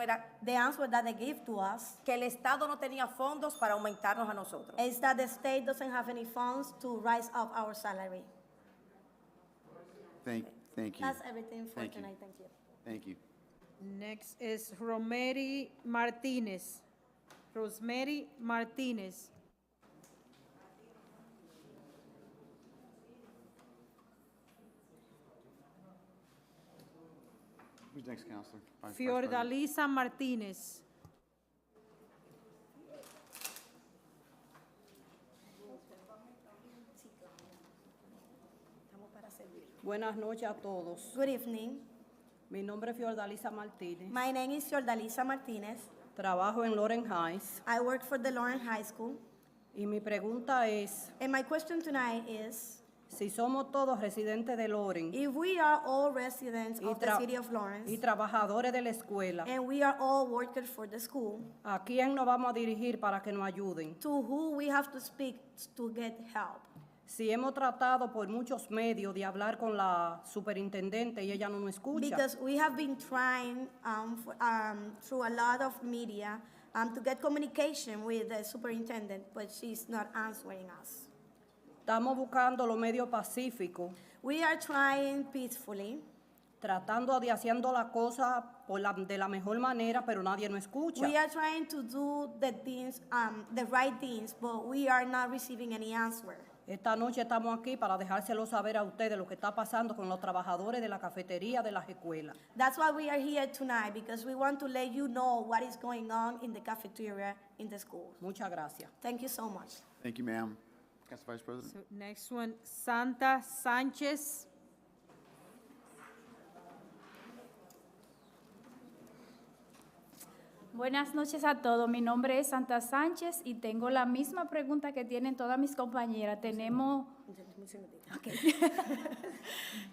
But uh, The answer that they give to us que el Estado no tenía fondos para aumentarnos a nosotros. is that the state doesn't have any funds to rise up our salary. Thank, thank you. That's everything for Thank you. tonight, thank you. Thank you. Next is Romery Martínez. Rosemary Martínez. Who's next, Counselor? Vice- Vice President. Fiordalisa Martínez. Buenas noches a todos. Good evening, Mi nombre es Fiordalisa Martínez. my name is Yordalisa Martínez. Trabajo en Loren Heights I work for the Lauren High School. y mi pregunta es And my question tonight is, si somos todos residentes de Loren if we are all residents of the tra- city of Lawrence, y trabajadores de la escuela, and we are all workers for the school, ¿a quién nos vamos a dirigir para que nos ayuden? to who we have to speak to get help. Si hemos tratado por muchos medios de hablar con la superintendente y ella no nos escucha, Because we have been trying um, for, um, through a lot of media um, to get communication with the superintendent, but she's not answering us. estamos buscando los medios pacíficos, We are trying peacefully. tratando de haciendo las cosas por la- de la mejor manera, pero nadie nos escucha. We are trying to do the things, um, the right things, but we are not receiving any answer. Esta noche estamos aquí para dejárselo saber a ustedes lo que está pasando con los trabajadores de la cafetería de las escuelas. That's why we are here tonight, because we want to let you know what is going on in the cafeteria in the school. Muchas gracias. Thank you so much. Thank you, ma'am. Council Vice President? So next one, Santa Sánchez. Buenas noches a todos. Mi nombre es Santa Sánchez y tengo la misma pregunta que tienen todas mis compañeras. Tenemos,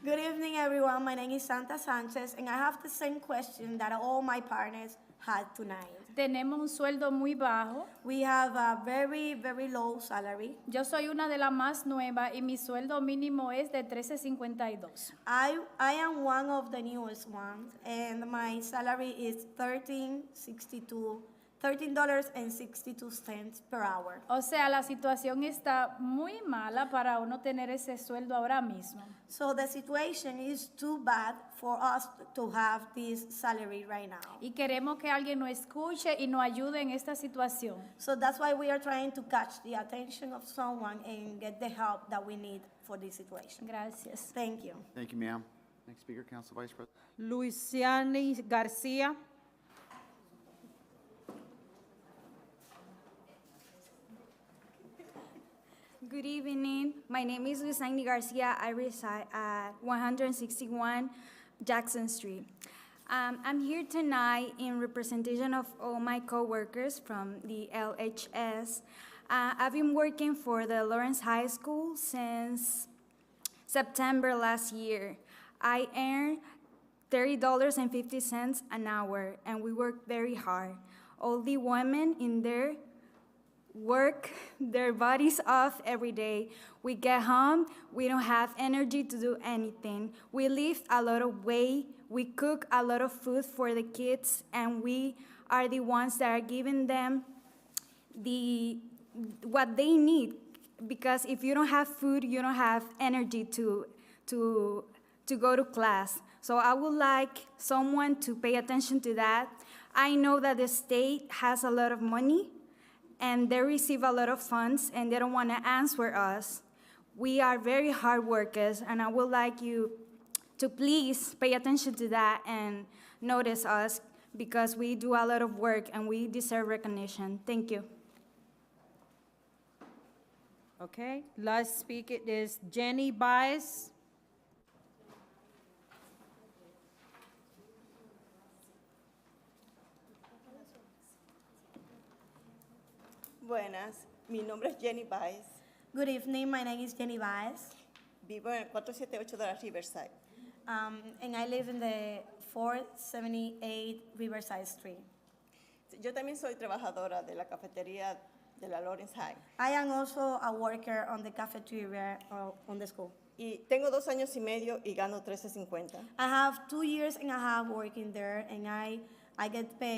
Good evening, everyone. My name is Santa Sanchez, and I have the same question that all my partners had tonight. tenemos un sueldo muy bajo. We have a very, very low salary. Yo soy una de las más nuevas y mi sueldo mínimo es de 13.52. I, I am one of the newest ones, and my salary is thirteen sixty-two, thirteen dollars and sixty-two cents per hour. O sea, la situación está muy mala para uno tener ese sueldo ahora mismo. So the situation is too bad for us to have this salary right now. Y queremos que alguien nos escuche y nos ayude en esta situación. So that's why we are trying to catch the attention of someone and get the help that we need for this situation. Gracias. Thank you. Thank you, ma'am. Next speaker, Council Vice President? Luisiani García. Good evening. My name is Luisani Garcia. I reside at 161 Jackson Street. Um, I'm here tonight in representation of all my coworkers from the LHS. Uh, I've been working for the Lawrence High School since September last year. I earned $30.50 an hour, and we work very hard. All the women in there work their bodies off every day. We get home, we don't have energy to do anything. We lift a lot of weight, we cook a lot of food for the kids, and we are the ones that are giving them the what they need because if you don't have food you don't have energy to to to go to class so i would like someone to pay attention to that i know that the state has a lot of money and they receive a lot of funds and they don't want to answer us we are very hard workers and i would like you to please pay attention to that and notice us because we do a lot of work and we deserve recognition thank you Okay, last speaker is Jenny Baez. Buenas, mi nombre es Jenny Baez, Good evening. My name is Jenny Baez, vivo en el 478 de la Riverside. um, and I live in the 478 Riverside Street. Yo también soy trabajadora de la cafetería de la Lawrence High I am also a worker on the cafeteria uh, on the school. y tengo dos años y medio y gano 13.50. I have two years and a half working there, and I, I get paid